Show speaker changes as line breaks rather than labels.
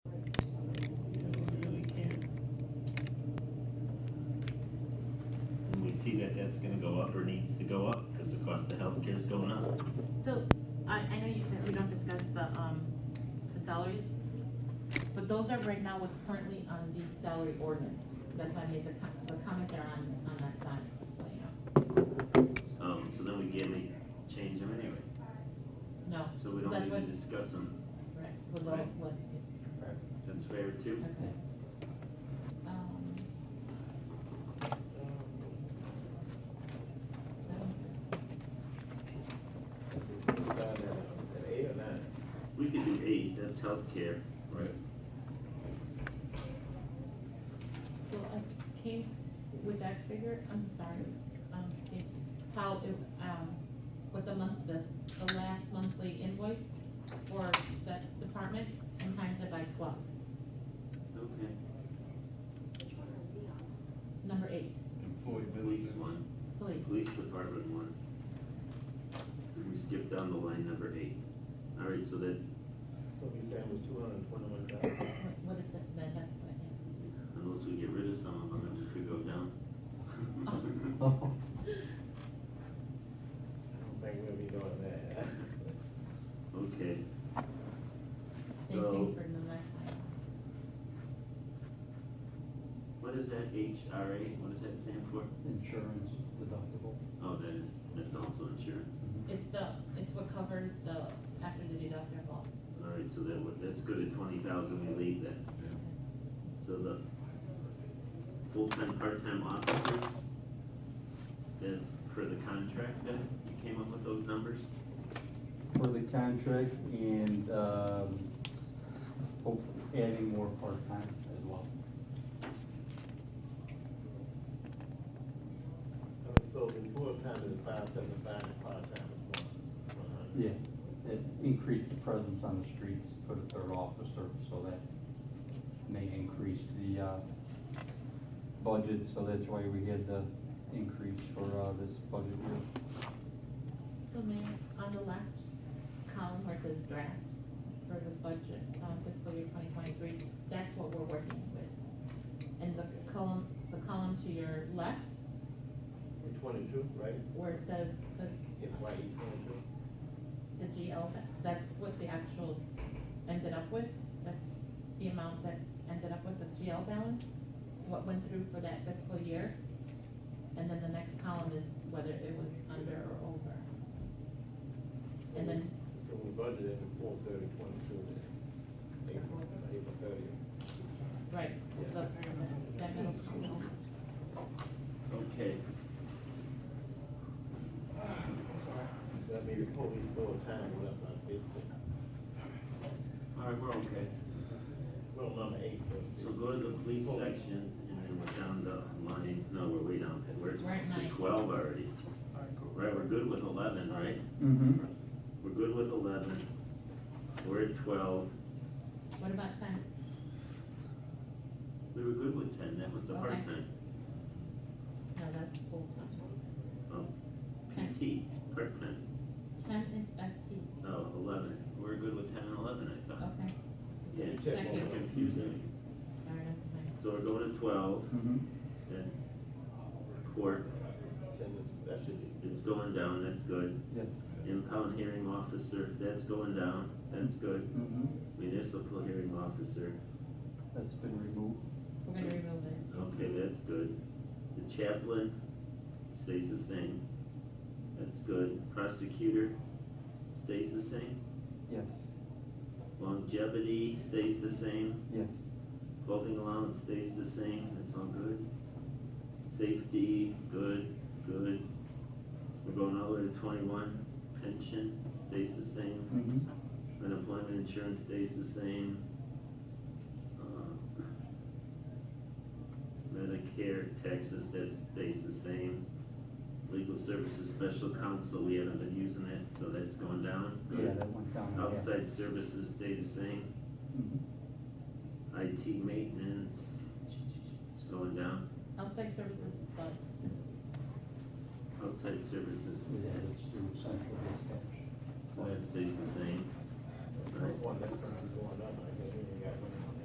see that that's gonna go up or needs to go up, because the cost of healthcare is going up.
So, I, I know you said we don't discuss the, um, the salaries, but those are right now what's currently on the salary ordinance. That's why I made the, com- the comment there on, on that side, just so you
Um, so then we can't make, change them anyway,
know. No,
so we don't
That's
need to discuss them,
right, we'll go with what,
that's fair too.
okay. Um,
Eight or nine?
We could do eight, that's healthcare. Right.
So I came with that figure, I'm sorry, um, it, how, it, um, with the month, the, the last monthly invoice for that department, and times it by twelve,
Okay,
number eight,
Employee
police
benefits.
one,
please.
police department one. And we skip down the line number eight. All right, so that,
So we said it was two hundred and twenty-one thousand.
What- What is that, that, that's what I
unless we get rid of some of them, then we could go down.
I don't think we'll be doing that.
Okay,
have, same thing
So-
for the last line.
what is that HRA, what does that stand for?
insurance deductible.
Oh, that is, that's also insurance.
It's the, it's what covers the, after the deductible,
All right, so that, would- that's good at twenty thousand, we leave that. So the full-time, part-time officers, that's for the contract then, you came up with those numbers?
For the contract and, um, hopefully adding more part-time as well.
And So the full-time is five seventy-five, and part-time is one, one hundred.
Yeah, it increased the presence on the streets, put a third officer, so that may increase the, uh, budget, so that's why we had the increase for, uh, this budget year.
So ma'am, on the last column where it says draft for the budget, um, fiscal year twenty twenty-three, that's what we're working with. And the column, the column to your left
We're twenty-two, right?
where it says the,
It's why you twenty-two.
the GL, that- that's what the actual ended up with. That's the amount that ended up with the GL balance, what went through for that fiscal year. And then the next column is whether it was under or over. And then
So we budgeted at four thirty, twenty-two, then April, April thirtieth.
Right, it's the, that middle school.
Okay,
So that means police full-time went up by fifty.
all right, we're okay.
Well, number eight was.
So go to the police section, and then we're down the line, no, we're way down, we're
We're at nine.
to twelve already. Right, we're good with eleven, right?
Mm-hmm.
We're good with eleven, we're at twelve,
What about ten?
we were good with ten, that was the
Okay.
part-time.
No, that's full time.
Oh,
Okay.
PT, part-time,
Ten is FT,
no, eleven, we're good with ten and eleven, I thought.
okay,
Yeah,
You
that
check
Second.
one.
confused me.
all right, that's fine.
So we're going to twelve,
Mm-hmm.
that's court,
Attendance, that should be.
it's going down, that's good.
Yes.
Impound hearing officer, that's going down, that's good.
Mm-hmm.
Municipal hearing officer,
That's been removed.
We're gonna remove it.
okay, that's good. The chaplain stays the same, that's good. Prosecutor stays the same.
Yes,
Longevity stays the same.
yes.
Clothing allowance stays the same, that's all good. Safety, good, good. We're going all the way to twenty-one. Pension stays the same.
Mm-hmm.
Unemployment insurance stays the same. Uh, Medicare taxes, that stays the same. Legal services, special counsel, we haven't been using it, so that's going down.
Yeah,
Good.
that went down. yeah.
Outside services stay the same.
Mhm.
IT maintenance is going down.
Outside services, but
Outside services,
Yeah, it's through central dispatch.
so that stays the same.
One, that's gonna